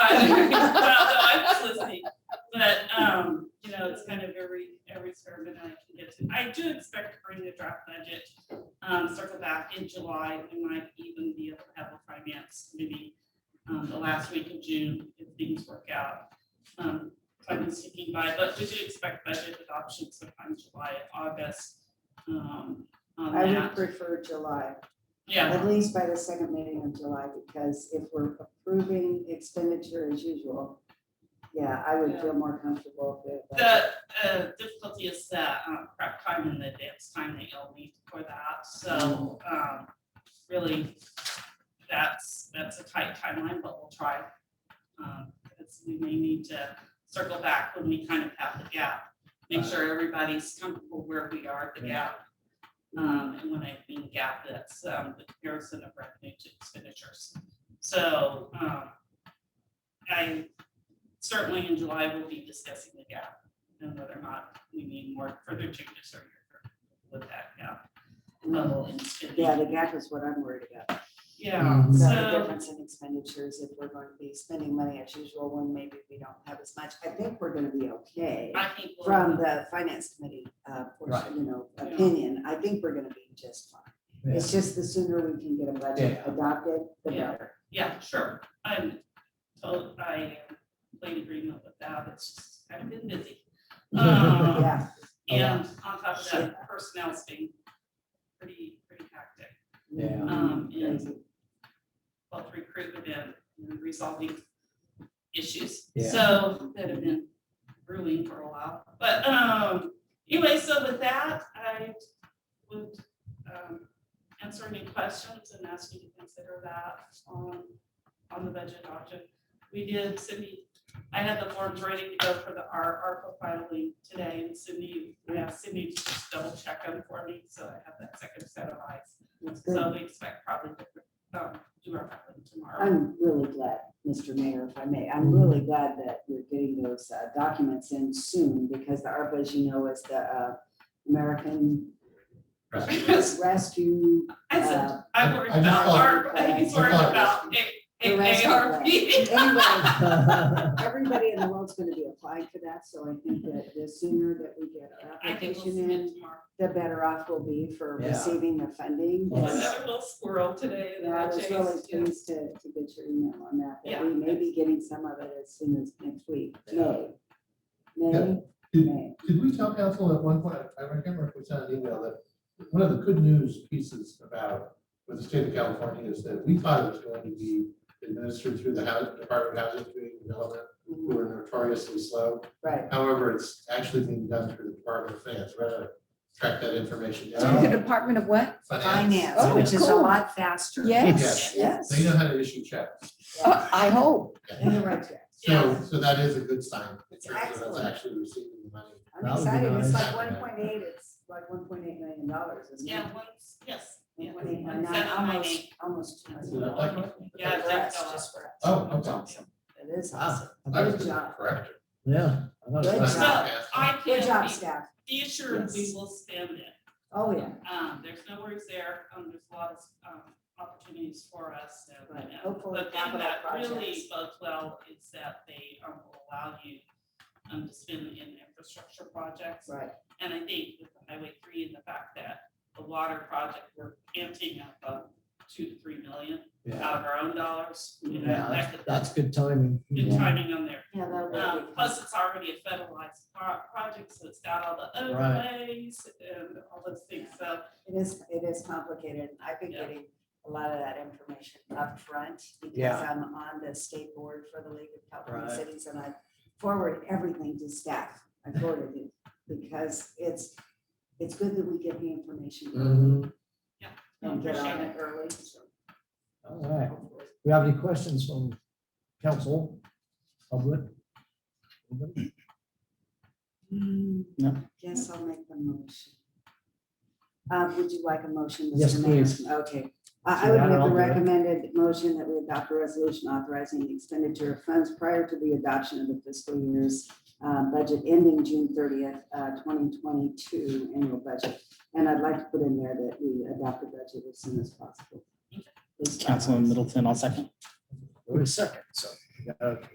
I was listening, but, um, you know, it's kind of every, every square minute I can get to. I do expect to bring the draft budget, um, circle back in July, we might even be able to have a finance maybe, um, the last week of June, if things work out. Um, I've been sticking by, but we do expect budget adoption sometime July, August, um, on I would that, prefer July, yeah. at least by the second meeting of July, because if we're approving expenditure as usual, yeah, I would feel more comfortable if it. The uh, difficulty is that um, prep time and the advance time that you'll need for that, so um, really, that's, that's a tight timeline, but we'll try. Um, Because we may need to circle back when we kind of have the gap, make sure everybody's comfortable where we are, at the gap. Um, And when I mean gap, that's um, the comparison of revenue to expenditures. So um, I certainly in July, we'll be discussing the gap and whether or not we need more further changes or you're with that gap level in Yeah, spending. the gap is what I'm worried about. Yeah, So the so, difference in expenditures, if we're going to be spending money as usual, when maybe we don't have as much, I think we're gonna be okay. I think. we'll- From the finance committee, uh, portion, you know, Yeah. opinion, I think we're gonna be just fine. It's just the sooner we can get a budget adopted, the Yeah. better. Yeah, sure. I'm, so I am in complete agreement with that. It's just kind of been busy. Um, Yeah, And on top of Yeah. that, personnel's been pretty, pretty hectic. Yeah. Mm-hmm. Um, and Crazy. both recruitment and and resolving issues. Yeah. So that have been brewing for a while. But um, anyway, so with that, I would um, answer any questions and ask you to consider that on, on the budget option. We did, Cindy, I had the forms ready to go for the R, ARPA filing today, and Cindy, I asked Cindy to just double check them for me, so I have that second set of eyes. That's good. So we expect probably to um, do our filing tomorrow. I'm really glad, Mr. Mayor, if I may, I'm really glad that you're getting those uh, documents in soon because the ARPA, as you know, is the uh, American Rescue. I said uh, I worried I just about thought- ARP, I think he's worried I thought- about A- The rest A- of ARP. Anyway, everybody in the world's going to be applying for that, so I think that the sooner that we get our I think we'll application see it in, tomorrow. the better off we'll be for Yeah. receiving the funding. Well, Yes. Another little squirrel today And that I I was really chased. yeah. pleased to, to get your email on that, that Yeah. we may be getting some of it as soon as next week, May. May, Yeah. May. Did we tell council at one point, I remember if we sent an email that one of the good news pieces about with the state of California is that we thought it was going to be administered through the House, Department of Housing and Community Development, who are notoriously slow. Right. However, it's actually being done through the Department of Finance, rather track that information To the down. Department of what? Finance, Oh, which is a cool. lot faster. Yes. Yes. They know how to issue checks. Uh, I hope. And the right track. So, so that is a good sign. in terms of us Excellent. Actually receiving the money. I'm excited, it's like one point eight, it's like one point eight million dollars, isn't it? Yeah, once, yes. yeah, One point one nine, seven, nine, Almost, eight. almost. two Is it million. up like that? Yeah, For that's us, all. just for us. Oh, okay. It is Wow. awesome. I was Good job. correct. Yeah. I thought it Good was- job. I Good job, can't, staff. be assured we will spend it. Oh, yeah. Um, there's no worries there, um, there's a lot of, um, opportunities for us, so. Right, and hopefully The thing capital that really projects. bodes well is that they, um, will allow you, um, to spend in infrastructure projects. Right. And I think with the Highway three and the fact that the water project, we're emptying up about two to three million Yeah, out of our own dollars, you know, Yeah, that could, that's good timing. good timing on there. Yeah, that Um, would be. plus it's already a federalized pro- project, so it's got all the Right. overlays and all those things, so It is, it is complicated. I've been Yeah. getting a lot of that information upfront because Yeah. I'm on the state board for the League of California Right. Cities and I forward everything to staff. I forwarded it because it's, it's good that we get the information early and Mhm. get on Appreciate it early. so All right. hopefully- We have any questions from council, public? Anybody? No. Yes, Mm, I'll make the motion. Uh, Would you like a motion? Mr. Yes, Mayor? please. Okay. I So I would that make I'll the do it. recommended motion that we adopt a resolution authorizing the expenditure of funds prior to the adoption of the fiscal year's uh, budget ending June thirtieth, uh, twenty twenty-two annual budget. And I'd like to put in there that we adopt the budget as soon as possible. Please, Councilman Middleton, I'll second. Wait a second, so we got a